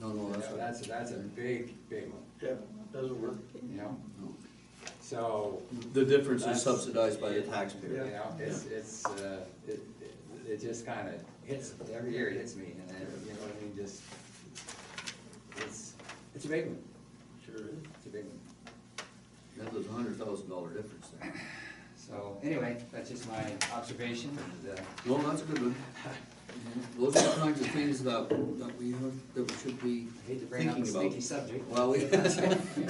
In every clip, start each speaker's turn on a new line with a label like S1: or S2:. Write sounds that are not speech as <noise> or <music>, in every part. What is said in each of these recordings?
S1: No, no, that's,
S2: That's,
S1: what-
S2: that's a big, big one.
S3: Yeah, doesn't work.
S2: Yeah,
S1: no.
S2: so,
S1: The difference is
S2: That's-
S1: subsidized by the
S2: yeah. you
S1: taxpayer.
S2: know, it's, it's, uh, it, it- it just kinda hits, every year it hits me, and I, you know what I mean, just, it's, it's a big one,
S3: Sure is.
S2: it's a big one.
S1: That was a hundred thousand dollar difference there.
S2: So, anyway, that's just my observation, and, uh,
S1: No, that's a good one. Those are the kinds of things that, that we have, that we should be
S2: I hate to bring up a
S1: thinking about.
S2: sneaky <laughs> subject.
S1: Well, we,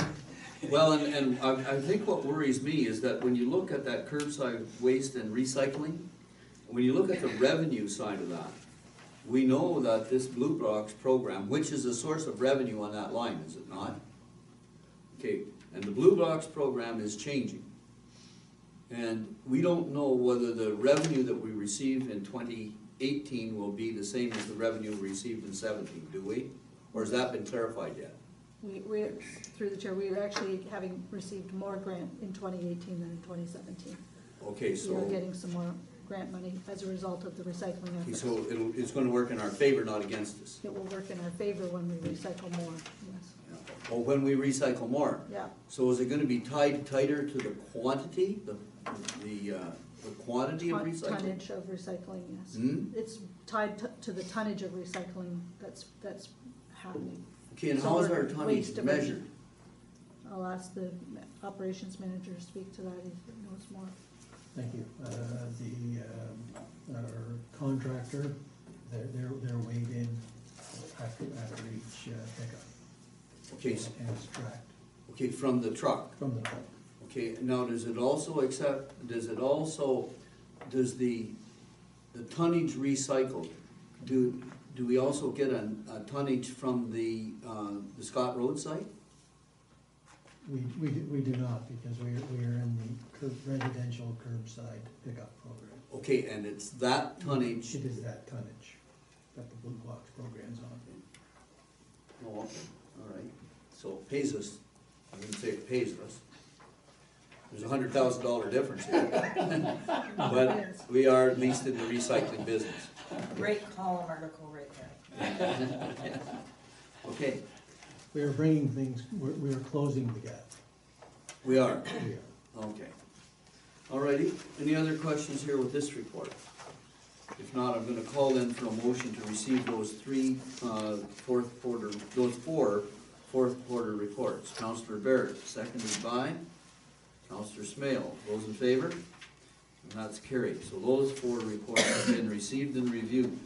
S1: well, and, and I, I think what worries me is that when you look at that curbside waste and recycling, when you look at the revenue side of that, we know that this Blue Box program, which is a source of revenue on that line, is it not? Okay, and the Blue Box program is changing. And we don't know whether the revenue that we receive in twenty eighteen will be the same as the revenue we received in seventeen, do we? Or has that been clarified yet?
S4: We, we, through the chair, we are actually having received more grant in twenty eighteen than in twenty seventeen.
S1: Okay,
S4: We are
S1: so,
S4: getting some more grant money as a result of the recycling
S1: okay,
S4: efforts.
S1: so it'll, it's gonna work in our favor, not against us.
S4: It will work in our favor when we recycle more, yes,
S1: Or when we recycle more.
S4: yeah.
S1: So is it gonna be tied tighter to the quantity, the, the, uh, the quantity of
S4: Ton-
S1: recycling?
S4: Tonnage of recycling, yes.
S1: Hmm?
S4: It's tied to- to the tonnage of recycling that's, that's happening.
S1: Okay, and
S4: So
S1: how is
S4: we're
S1: our
S4: waste
S1: tonnage
S4: diversion.
S1: measured?
S4: I'll ask the operations manager to speak to that if he knows more.
S5: Thank you. Uh, The, um, our contractor, they're, they're, they're weighed in after, after each uh, pickup.
S1: Okay, s-
S5: And it's tracked
S1: okay, from the truck?
S5: from the truck.
S1: Okay, now, does it also accept, does it also, does the, the tonnage recycled, do, do we also get a, a tonnage from the, uh, the Scott Road site?
S5: We, we, do- we do not, because we are, we are in the curb, residential curbside pickup program.
S1: Okay, and it's that tonnage,
S5: It is that tonnage that the Blue Box program's on.
S1: oh, okay, all right, so it pays us, I wouldn't say it pays us. There's a hundred thousand dollar difference here. <laughs> But we are at least in the recycling business.
S6: Great column article right there.
S1: Okay,
S5: We are bringing things, we're, we are closing the gap.
S1: we are.
S5: We are.
S1: Okay. All righty, any other questions here with this report? If not, I'm gonna call in for a motion to receive those three, uh, fourth quarter, those four fourth quarter reports. Counselor Barrett, seconded by Counselor Smale. Those in favor? And that's carried. So those four reports have been received and reviewed.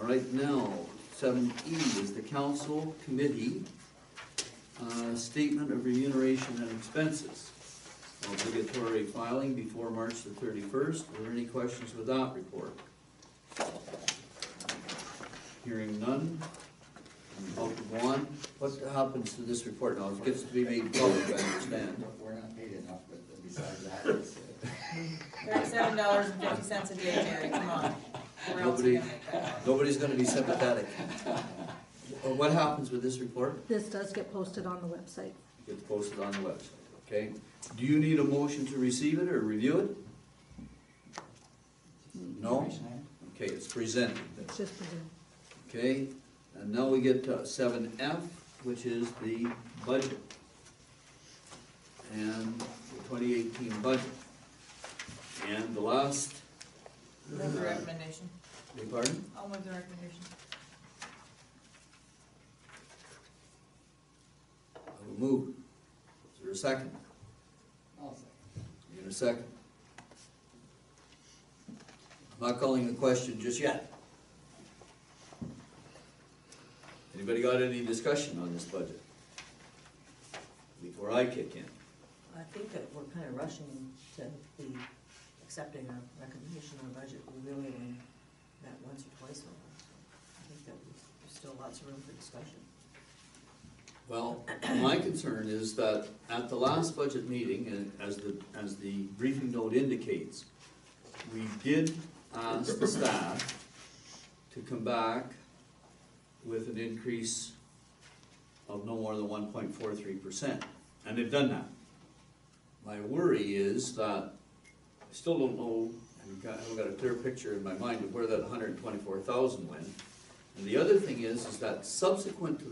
S1: All right, now, seven E is the council committee, uh, statement of remuneration and expenses obligatory filing before March the thirty-first. Are there any questions with that report? Hearing none. I'll go on. What happens to this report now? It gets to be made public, I understand.
S2: We're not paid enough, but besides that, it's, uh,
S6: Thirty-seven dollars and fifty cents a day, Terry, come on. Where else are we gonna make that?
S1: Nobody's gonna be sympathetic. Uh, What happens with this report?
S4: This does get posted on the website.
S1: It Gets posted on the website, okay? Do you need a motion to receive it or review it? No?
S2: information item.
S1: Okay, it's presented then.
S4: It's just presumed.
S1: Okay, and now we get to seven F, which is the budget. And the twenty eighteen budget. And the last,
S6: Move the recommendation.
S1: beg pardon?
S6: I'll move the recommendation.
S1: I will move. Is there a second?
S2: I'll say.
S1: You in a second? I'm not calling the question just yet. Anybody got any discussion on this budget? Before I kick in?
S7: I think that we're kind of rushing to be accepting a recommendation on a budget, we really only met once or twice on it. I think that we- there's still lots of room for discussion.
S1: Well, my concern is that at the last budget meeting, and as the, as the briefing note indicates, we did ask the staff to come back with an increase of no more than one point four three percent, and they've done that. My worry is that I still don't know, I've got, I haven't got a clear picture in my mind of where that hundred and twenty-four thousand went. And the other thing is, is that subsequent to